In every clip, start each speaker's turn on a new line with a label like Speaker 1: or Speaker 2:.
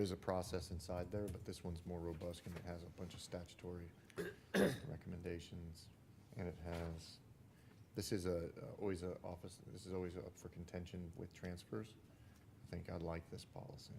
Speaker 1: There's a process inside there, but this one's more robust and it has a bunch of statutory recommendations. And it has, this is a, a- always a office, this is always up for contention with transfers. I think I like this policy.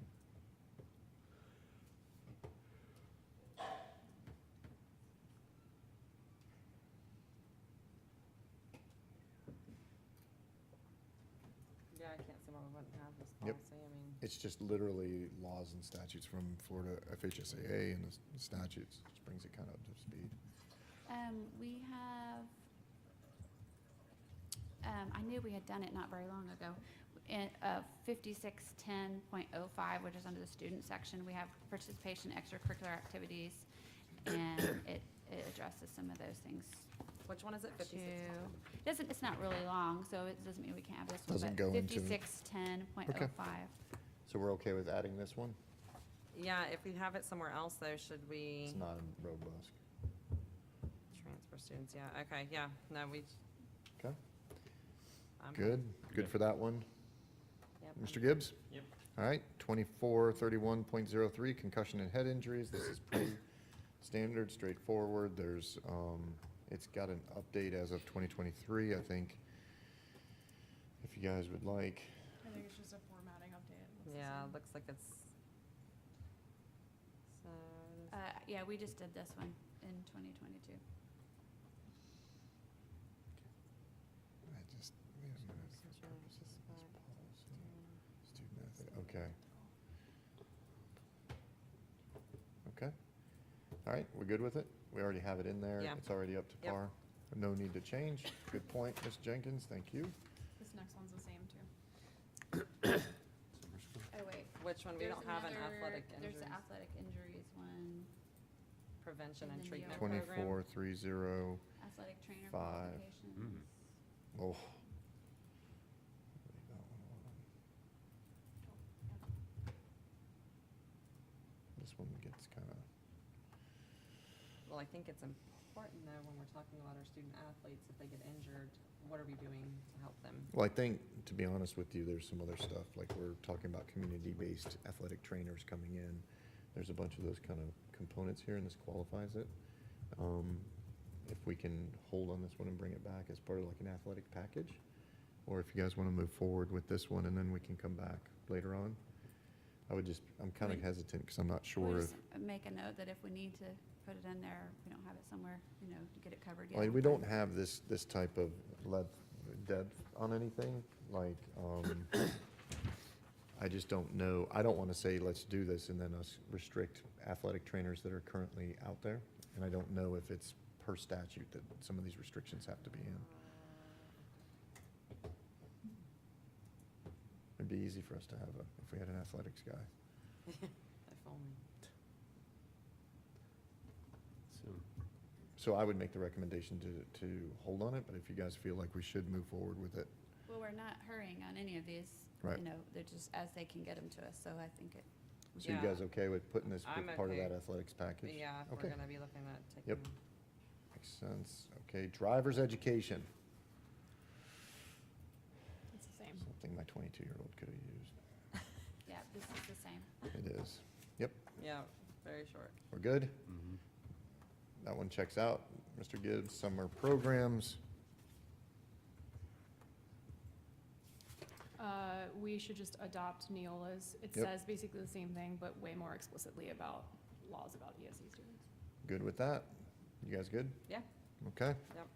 Speaker 2: Yeah, I can't see why we wouldn't have this
Speaker 1: Yep.
Speaker 2: policy, I mean,
Speaker 1: It's just literally laws and statutes from Florida FHSAA and the s- statutes, just brings it kind of up to speed.
Speaker 3: Um, we have, um, I knew we had done it not very long ago. In, uh, fifty-six ten point oh five, which is under the student section, we have participation in extracurricular activities. And it, it addresses some of those things
Speaker 2: which one is it,
Speaker 3: too.
Speaker 2: fifty-six?
Speaker 3: Doesn't, it's not really long, so it doesn't mean we can't have this one,
Speaker 1: Doesn't
Speaker 3: but
Speaker 1: go into-
Speaker 3: fifty-six ten point oh five.
Speaker 1: So we're okay with adding this one?
Speaker 2: Yeah, if we have it somewhere else though, should we
Speaker 1: It's not robust.
Speaker 2: transfer students, yeah, okay, yeah, no, we.
Speaker 1: Okay.
Speaker 2: I'm-
Speaker 1: Good, good for that one.
Speaker 2: yep,
Speaker 1: Mr.
Speaker 2: I'm-
Speaker 1: Gibbs?
Speaker 4: Yep.
Speaker 1: All right, twenty-four thirty-one point zero three, concussion and head injuries, this is pretty standard, straightforward, there's, um, it's got an update as of twenty twenty-three, I think. If you guys would like,
Speaker 5: I think it's just a formatting update. It looks the
Speaker 2: Yeah,
Speaker 5: same.
Speaker 2: looks like it's. So,
Speaker 3: Uh, yeah, we just did this one in twenty twenty-two.
Speaker 1: I just, wait a minute, for purposes of this policy, student athlete, okay. Okay, all right, we're good with it, we already have it in there,
Speaker 2: Yeah.
Speaker 1: it's already up to
Speaker 2: Yep.
Speaker 1: par, no need to change, good point, Ms. Jenkins, thank you.
Speaker 5: This next one's the same too.
Speaker 3: Oh, wait.
Speaker 2: which one, we
Speaker 3: There's
Speaker 2: don't have an
Speaker 3: another-
Speaker 2: athletic
Speaker 3: There's
Speaker 2: injuries,
Speaker 3: the athletic injuries one,
Speaker 2: prevention and
Speaker 3: and then the E
Speaker 2: treatment program.
Speaker 1: Twenty-four, three, zero,
Speaker 3: athletic trainer
Speaker 1: Five.
Speaker 3: qualifications.
Speaker 1: oh. This one gets kind of,
Speaker 2: Well, I think it's important though, when we're talking about our student athletes, if they get injured, what are we doing to help them?
Speaker 1: well, I think, to be honest with you, there's some other stuff, like we're talking about community-based athletic trainers coming in. There's a bunch of those kind of components here, and this qualifies it. Um, If we can hold on this one and bring it back as part of like an athletic package, or if you guys want to move forward with this one, and then we can come back later on. I would just, I'm kind of
Speaker 3: Right.
Speaker 1: hesitant, because I'm not
Speaker 3: We'll
Speaker 1: sure if.
Speaker 3: just make a note that if we need to put it in there, we don't have it somewhere, you know, to get it covered yet.
Speaker 1: Like, we don't have this, this type of lead, depth on anything, like, um, I just don't know, I don't wanna say, let's do this, and then us restrict athletic trainers that are currently out there, and I don't know if it's per statute that some of these restrictions have to be in.
Speaker 2: Uh,
Speaker 1: It'd be easy for us to have a, if we had an athletics guy.
Speaker 2: If only.
Speaker 4: So,
Speaker 1: So I would make the recommendation to, to hold on it, but if you guys feel like we should move forward with it,
Speaker 3: Well, we're not hurrying on any of these,
Speaker 1: Right.
Speaker 3: you know, they're just as they can get them to us, so I think it,
Speaker 1: so you
Speaker 2: Yeah.
Speaker 1: guys okay with putting this
Speaker 2: I'm
Speaker 1: with part of
Speaker 2: okay.
Speaker 1: that athletics package?
Speaker 2: But yeah, if
Speaker 1: Okay.
Speaker 2: we're gonna be looking at taking.
Speaker 1: Yep. Makes sense. Okay, driver's education,
Speaker 5: It's the same.
Speaker 1: something my twenty-two-year-old could have
Speaker 3: yeah, this is the same.
Speaker 1: used. It is.
Speaker 2: Yeah, very short.
Speaker 1: We're good?
Speaker 4: mhm.
Speaker 1: That one checks out. Mr. Gibbs, summer programs.
Speaker 5: Uh, we should just adopt Neola's. It
Speaker 1: Yep.
Speaker 5: says basically the same thing, but way more explicitly about laws about ESE students.
Speaker 1: Good with that? You guys good?
Speaker 2: Yeah.
Speaker 1: Okay.
Speaker 2: Yep.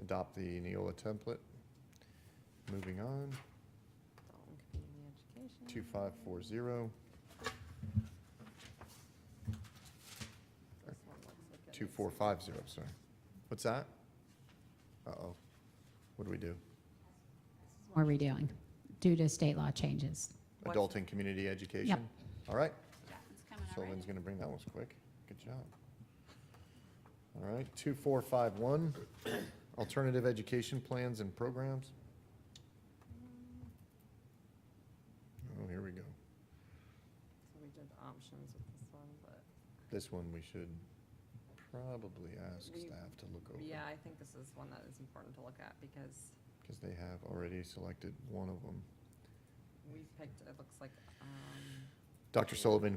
Speaker 1: Adopt the Neola template. Moving on,
Speaker 2: Dalton Community Education.
Speaker 1: two-five-four-zero,
Speaker 2: This one looks like it is-
Speaker 1: two-four-five-zero, sorry. What's that? Uh-oh. What do we do?
Speaker 6: We're redoing due to state law changes.
Speaker 2: What's-
Speaker 1: Adult and community education? All right.
Speaker 3: That one's coming already.
Speaker 1: Sullivan's gonna bring that one's quick. Good job. All right, two, four, five, one, alternative education plans and programs. Oh, here we go.
Speaker 2: So we did options with this one, but
Speaker 1: This one we should probably ask
Speaker 2: We-
Speaker 1: staff to look over.
Speaker 2: yeah, I think this is one that is important to look at because
Speaker 1: Because they have already selected one of them.
Speaker 2: we picked, it looks like, um,
Speaker 1: Dr. Sullivan